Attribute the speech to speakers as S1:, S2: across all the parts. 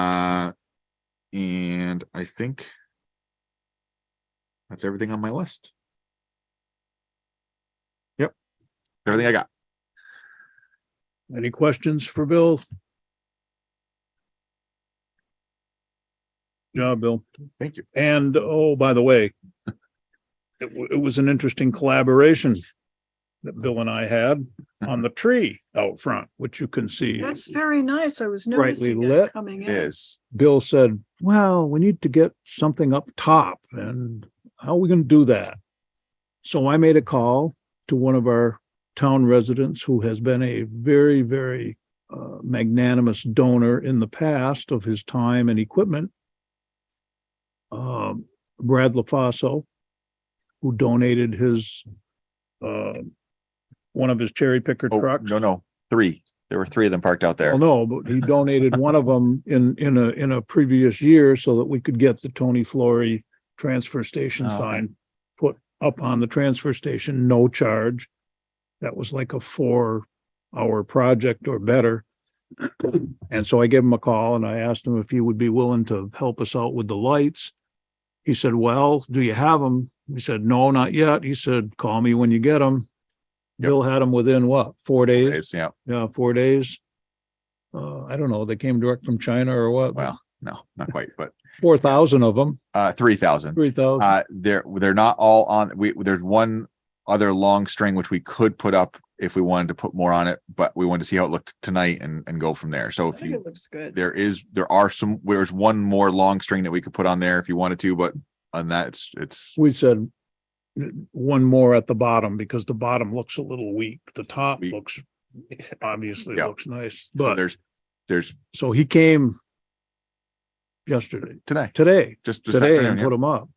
S1: Uh, And I think that's everything on my list. Yep. Everything I got.
S2: Any questions for Bill? Good Job, Bill.
S1: Thank you.
S2: And oh, by the way, it, wa- it was an interesting collaboration that Bill and I had on the tree out front, which you can see.
S3: That's very nice. I was
S2: Brightly
S3: noticing
S2: lit.
S3: it coming in.
S1: Is
S2: Bill said, well, we need to get something up top and how are we going to do that? So I made a call to one of our town residents who has been a very, very uh, magnanimous donor in the past of his time and equipment. Um, Brad LaFaso, who donated his uh, one of his cherry picker
S1: oh,
S2: trucks.
S1: no, no, three. There were three of them parked out there.
S2: Well, no, but he donated one of them in, in a, in a previous year so that we could get the Tony Flory transfer station
S1: Oh, okay.
S2: sign put up on the transfer station, no charge. That was like a four-hour project or better. And so I gave him a call and I asked him if he would be willing to help us out with the lights. He said, well, do you have them? We said, no, not yet. He said, call me when you get them.
S1: Yep.
S2: Bill had them within what, four days?
S1: It's- Yeah,
S2: Yeah, four days. Uh, I don't know, they came direct from China or what?
S1: well, no, not quite, but
S2: Four thousand of them,
S1: uh, three thousand.
S2: three thousand.
S1: Uh, they're, they're not all on, we, there's one other long string which we could put up if we wanted to put more on it, but we wanted to see how it looked tonight and, and go from there. So
S3: I
S1: if
S3: think
S1: you,
S3: it looks good.
S1: there is, there are some, there's one more long string that we could put on there if you wanted to, but on that, it's, it's,
S2: We said uh, one more at the bottom because the bottom looks a little weak. The top
S1: Weak.
S2: looks, obviously
S1: Yeah.
S2: looks nice,
S1: so
S2: but
S1: there's, there's
S2: so he came yesterday,
S1: today,
S2: today,
S1: just, just
S2: today and
S1: afternoon,
S2: put
S1: yeah.
S2: them up.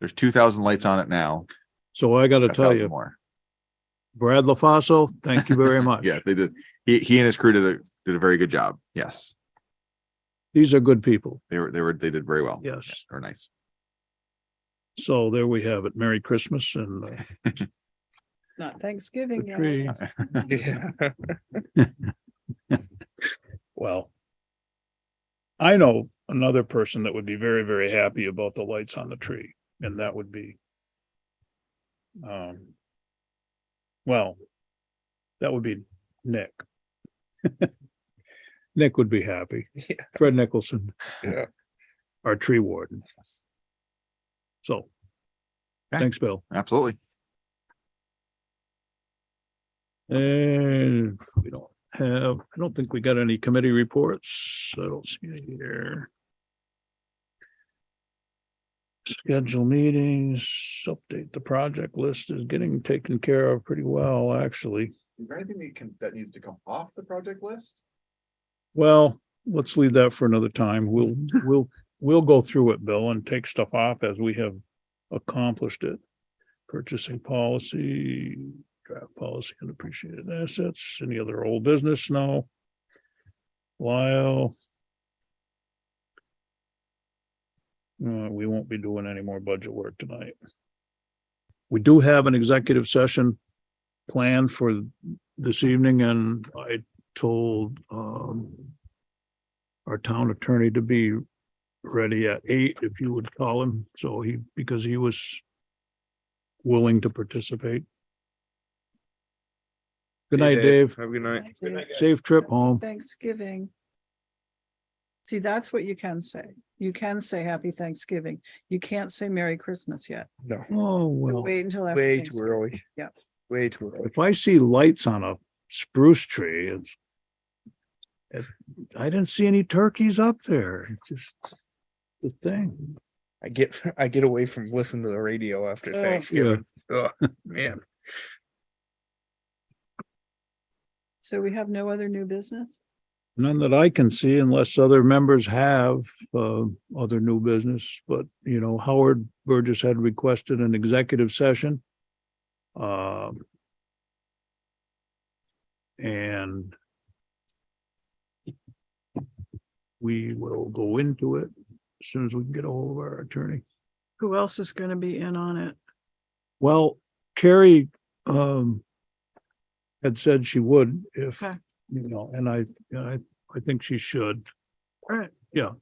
S1: there's two thousand lights on it now.
S2: So I gotta
S1: a
S2: tell
S1: 1,000
S2: you,
S1: More.
S2: Brad LaFaso, thank you very much.
S1: Yeah, they did. He, he and his crew did a, did a very good job. Yes.
S2: These are good people.
S1: They were, they were, they did very well.
S2: Yes.
S1: Yeah, They were nice.
S2: So there we have it. Merry Christmas and uh,
S3: It's not Thanksgiving
S2: the
S3: yet.
S2: tree. Well. I know another person that would be very, very happy about the lights on the tree, and that would be. Um. Well. That would be Nick. Nick would be happy.
S4: Yeah.
S2: Fred Nicholson.
S4: Yeah.
S2: Our tree warden. So.
S1: Okay.
S2: Thanks, Bill.
S1: Absolutely.
S2: And we don't have, I don't think we got any committee reports. I don't see any here. Schedule meetings, update the project list is getting taken care of pretty well, actually.
S1: Is there anything that can, that needs to come off the project list?
S2: Well, let's leave that for another time. We'll, we'll, we'll go through it, Bill, and take stuff off as we have accomplished it. Purchasing policy, draft policy and appreciated assets, any other old business? No. Lyle. Uh, we won't be doing any more budget work tonight. We do have an executive session planned for this evening and I told um our town attorney to be ready at eight, if you would call him, so he, because he was willing to participate. Good night, Dave.
S4: Have a good night.
S3: Good night,
S2: Safe trip home.
S3: Thanksgiving. See, that's what you can say. You can say happy Thanksgiving. You can't say Merry Christmas yet.
S4: No,
S2: Oh, well,
S3: Wait until after.
S4: way too
S3: Thanksgiving.
S4: early.
S3: Yeah.
S4: Way too early.
S2: if I see lights on a spruce tree, it's it- I didn't see any turkeys up there. It's just the thing.
S4: I get, I get away from listening to the radio after
S3: Oh,
S4: Thanksgiving. Oh, man.
S3: So we have no other new business?
S2: None that I can see unless other members have uh other new business, but you know, Howard Burgess had requested an executive session. Um. And. We will go into it as soon as we can get a hold of our attorney.
S3: Who else is going to be in on it?
S2: Well, Carrie um had said she would if,
S3: Okay.
S2: you know, and I, and I, I think she should.
S3: All right.
S2: Yeah,